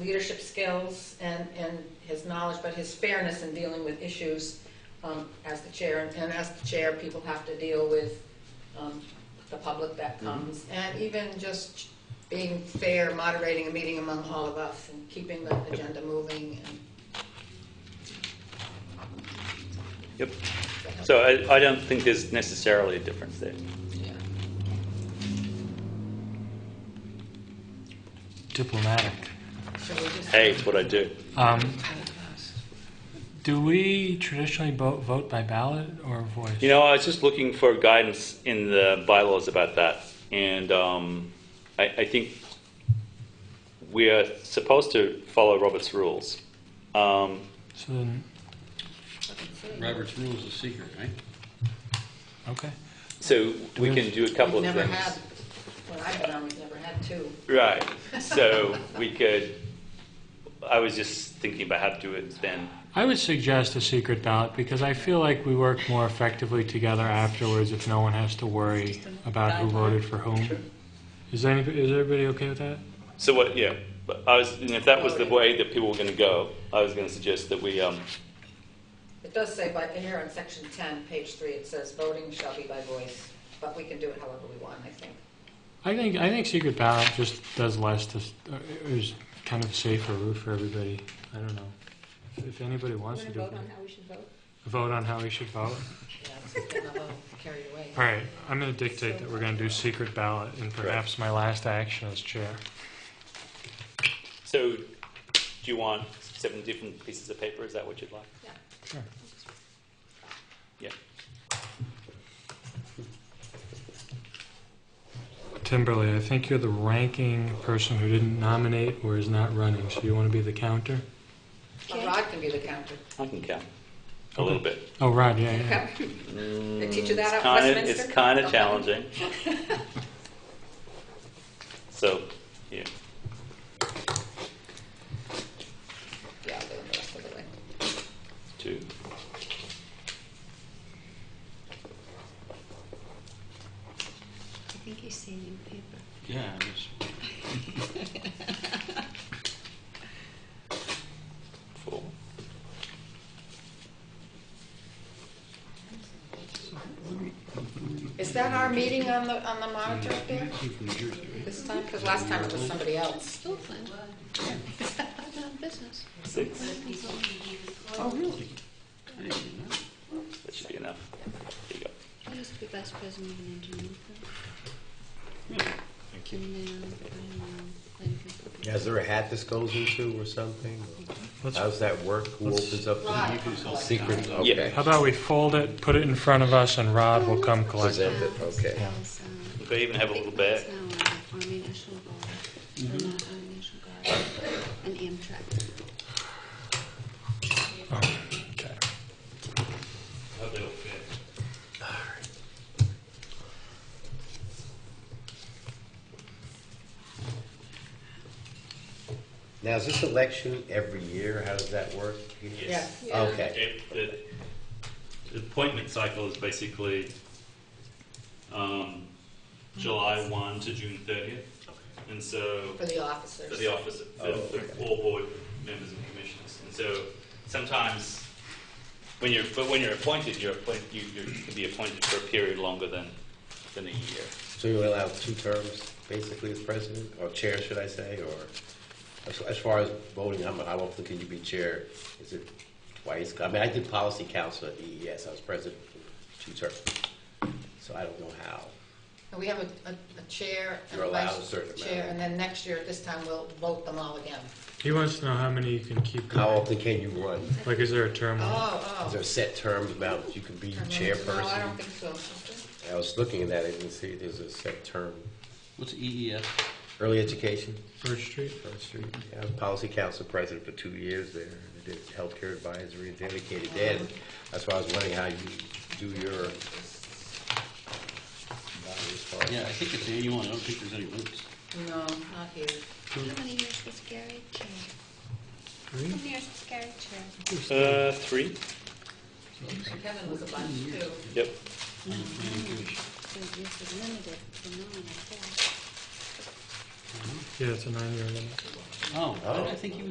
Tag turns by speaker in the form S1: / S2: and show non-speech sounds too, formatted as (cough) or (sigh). S1: leadership skills and, and his knowledge, but his fairness in dealing with issues um, as the chair. And as the chair, people have to deal with um, the public that
S2: Mm-hmm.
S1: comes. And even just being fair, moderating a meeting among all of us and keeping the agenda moving. And
S2: Yep. So I, I don't think there's necessarily a difference there.
S3: diplomatic.
S1: so we just,
S2: Hey, it's what I do.
S3: Um, do we traditionally vote, vote by ballot or voice?
S2: You know, I was just looking for guidance in the bylaws about that, and um, I, I think we are supposed to follow Robert's rules. Um,
S3: so then,
S4: Robert's rules is secret, right?
S3: okay.
S2: so we can do a couple
S1: we've
S2: of
S1: never
S2: things.
S1: had, when I've been on, we've never had two.
S2: Right. So we could. I was just thinking about how to do it then.
S3: I would suggest a secret ballot because I feel like we work more effectively together afterwards if no one has to worry about who voted for whom. Is, any, is everybody okay with that?
S2: So what? Yeah. But I was, and if that was the way that people were going to go, I was going to suggest that we. Um,
S1: It does say by, in here on section 10, page 3, it says voting shall be by voice, but we can do it however we want, I think.
S3: I think I think secret ballot just does less to s- uh, is kind of a safer route for everybody. I don't know if, if anybody wants to do it.
S5: how we should vote?
S3: Vote on how we should vote.
S1: Yeah, it's getting a little carried away.
S3: All right, I'm going to dictate that we're going to do secret ballot, and perhaps my last action as chair.
S2: so, do you want seven different pieces of paper? Is that what you'd like?
S5: Yeah.
S3: Sure.
S2: Yeah.
S3: Timberly, I think you're the ranking person who didn't nominate or is not running, so you want to be the counter?
S1: Well, Rod can be the counter.
S2: I can count a little bit.
S3: Oh, Rod, yeah, yeah.
S1: They teach you that
S2: It's
S1: at
S2: kind of
S1: Westminster?
S2: it's kind of challenging.
S1: (laughs)
S2: so, yeah.
S1: Yeah, I'll do it the rest of the way.
S2: Two.
S5: I think he's saving paper.
S4: Yeah, it was
S2: Four.
S1: Is that our meeting on the, on the monitor up there
S4: came from New Jersey, right?
S1: this time? Because last time it was somebody else.
S5: Still fun. I've been on business.
S2: Six.
S4: Oh, really? I didn't know.
S2: That should be enough. There you go.
S5: I used to be vice president of engineering. Thank you. um,
S6: Is there a hat this goes into or something?
S3: Let's-
S6: How's that work? Who opens up
S1: Rod,
S6: the
S1: I'll collect it.
S6: secret? Okay.
S3: How about we fold it, put it in front of us, and Rod will come collect it?
S6: Present it, okay.
S2: They even have a little bag.
S5: um, Now, on the Army National Guard, or not Army National Guard, an Amtrak.
S3: Okay.
S6: Now, is this election every year? How does that work?
S1: Yeah.
S6: Okay.
S2: the, the appointment cycle is basically um, July 1 to June 30th. And so
S1: For the officers.
S2: for the office, for,
S6: Oh,
S2: for
S6: okay.
S2: all board members and commissioners. And so sometimes when you're, but when you're appointed, you're appointed, you, you can be appointed for a period longer than, than a year.
S6: So you allow two terms, basically, as president, or chair, should I say, or as- as far as voting, how mu- how often can you be chair? Is it twice? I mean, I did policy council at EES. I was president for two terms. So I don't know how.
S1: And we have a, a a chair and
S6: You're
S1: a
S6: allowed a
S1: vice
S6: certain
S1: chair,
S6: amount.
S1: and then next year, at this time, we'll vote them all again.
S3: He wants to know how many you can keep
S6: How Uh,
S3: going.
S6: often can you run?
S3: Like, is there a term limit?
S1: Oh,
S6: Is
S1: oh.
S6: there set terms about you can be chairperson?
S1: No, I don't think so. Is
S6: I was looking at that, I didn't see there's a set term.
S4: What's E EES?
S6: Early education,
S3: First Street?
S6: First Street. I was policy council president for two years there. and I did healthcare advisory and dedicated dad. That's why I was wondering how you do your. body as far as-
S4: Yeah, I think it's annual, I don't think there's any votes.
S1: there? No, not here.
S5: How many years was Gary chair? How many years was Gary chair?
S2: Uh, three?
S1: Kevin was a bunch too.
S2: Yep.
S5: So this is limited to nine, I guess.
S7: Yeah, it's a nine-year limit.
S4: Oh,
S3: Oh.
S4: I think you